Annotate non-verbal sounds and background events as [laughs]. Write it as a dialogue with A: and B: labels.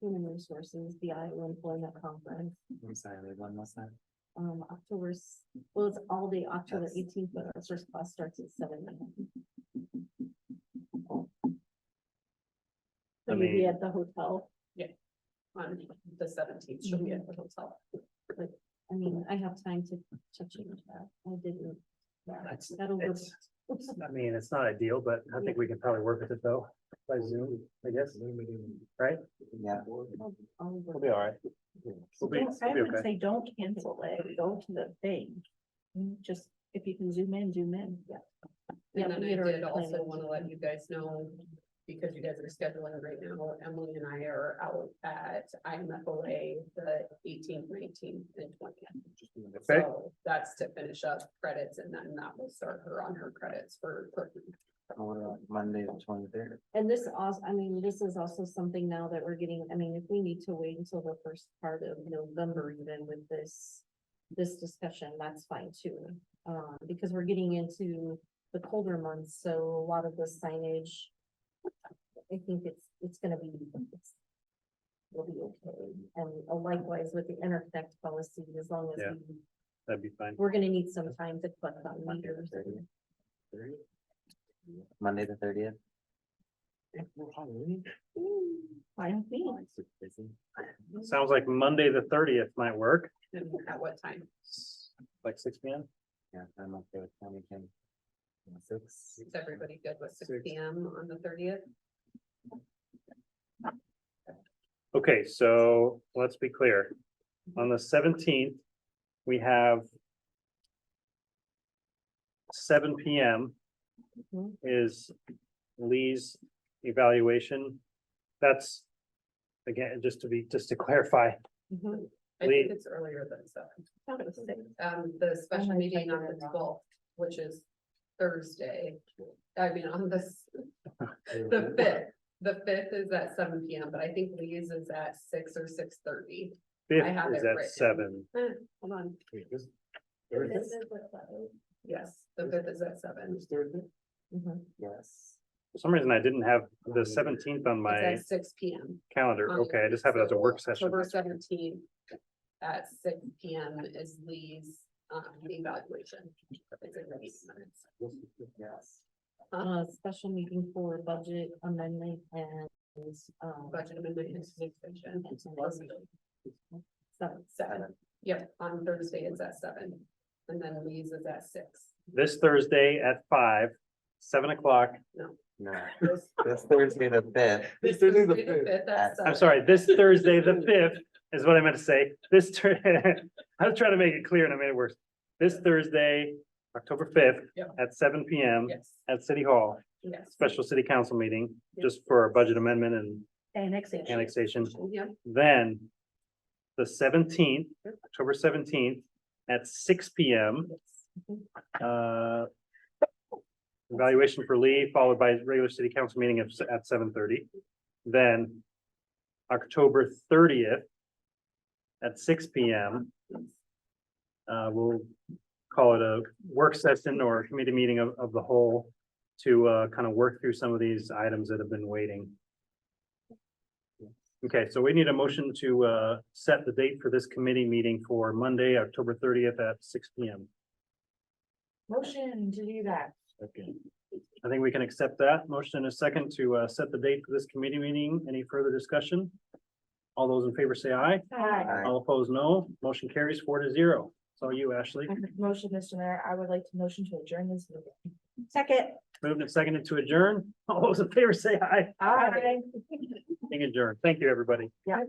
A: Human Resources, the Iowa Employment Conference,
B: I'm sorry, wait, one last time.
A: um, October, s- well, it's all day, October
B: That's-
A: eighteenth, but our first class starts at seven. a.m.
B: I
A: So maybe
B: mean-
A: at the hotel.
C: Yeah.
A: On,
C: the seventeenth, she'll be at the hotel.
A: I mean, I have time to, to change that, I didn't.
B: That's-
A: That'll work.
B: it's- I mean, it's not ideal, but I think we can probably work with it though, by Zoom, I guess, right? Yeah.
A: I'll- I'll work.
B: We'll be all right. We'll be,
D: Don't- I
B: we'll be
D: would
B: okay.
D: say, don't cancel it, go to the thing, Mm, just, if you can zoom in, zoom in. Yeah.
A: Yeah,
C: And then
A: we
C: I
A: had already
C: did also
A: planned.
C: want to let you guys know, because you guys are scheduling right now, Emily and I are out at IMFOA the eighteenth, nineteenth and twentieth.
B: Okay,
C: So that's to finish up credits and then that will start her on her credits for. clerking.
E: Monday, the twenty-third.
A: And this also, I mean, this is also something now that we're getting, I mean, if we need to wait until the first part of November even with this. This discussion, that's fine too, uh, because we're getting into the colder months, so a lot of the signage. I think it's, it's gonna be. it's- Will be okay, and likewise with the interconnect policy, as long as
B: Yeah.
A: we,
B: that'd be fine.
A: we're gonna need some time to collect on
E: Monday the
A: meters.
E: 30th. Monday, the thirtieth. Oh,
A: I don't think,
B: Sounds like Monday, the thirtieth might work,
C: And at what time?
B: like six P M.
E: Yeah, I'm okay with twenty, can. Six.
C: Is everybody good with six
B: Six.
C: P M on the thirtieth?
B: Okay, so let's be clear. On the seventeenth, we have seven P M
A: Mhm.
B: is Lee's evaluation. That's, again, just to be, just to clarify,
A: Mhm.
C: I
B: Wait.
C: think it's earlier than seven.
A: thought it was six.
C: um, the special
A: might
C: meeting
A: check
C: on
A: it
C: the
A: out.
C: twelfth, which is Thursday. I mean, on this, the fifth, the fifth is at seven P M, but I think Lee's is at six or six thirty.
B: fifth
C: have
B: is
C: it
B: at
C: written.
B: seven.
C: Eh, Hold on,
A: This is what that is.
C: yes, the fifth is at seven. It's
A: Mhm.
E: Yes.
B: For some reason, I didn't have
C: Oh,
B: the seventeenth on my
C: at six P M.
B: calendar. Okay, I just have it as a work session.
C: October seventeenth at six P M is Lee's, um, evaluation. It's in the meeting minutes.
E: Yes.
C: Um,
A: uh, special meeting for budget amendment and, um.
C: Budget amendment and extension.
A: Seven.
C: Seven, yep, on Thursday it's at seven, and then Lee's is at six.
B: This Thursday at five, seven o'clock.
E: No,
C: This-
E: that's Thursday, the fifth.
C: this
E: Thursday the
C: Thursday the
E: At-
C: fifth at
B: I'm
C: seven.
B: sorry,
C: [laughs]
B: this Thursday, the fifth is what I meant to say. This, Thur- [laughs] I was trying to make it clear and I made it worse. This Thursday, October fifth
C: Yep.
B: at seven P M
C: Yes,
B: at City Hall,
C: yes.
B: special city council meeting, just for a budget amendment and
D: Annexation.
B: annexation.
C: Yeah,
B: Then the seventeenth, October seventeenth at six P M. Uh, evaluation for Lee, followed by regular city council meeting at, at seven thirty. Then October thirtieth at six P M. Uh, we'll call it a work session or committee meeting of, of the whole to, uh, kind of work through some of these items that have been waiting. Okay, so we need a motion to, uh, set the date for this committee meeting for Monday, October thirtieth at six P M.
D: Motion to do that.
B: I think we can accept that. Motion and a second to uh set the date for this committee meeting. Any further discussion? All those in favor say aye.
D: Hi,
E: Aye.
B: All opposed, no. Motion carries four to zero. So you, Ashley,
D: motion, Mr. Mayor, I would like to motion to adjourn this meeting. Second.
B: moved and seconded to [laughs] adjourn. All those in favor say aye.
D: Aye.
B: Meeting adjourned. Thank you, everybody.
D: Yeah.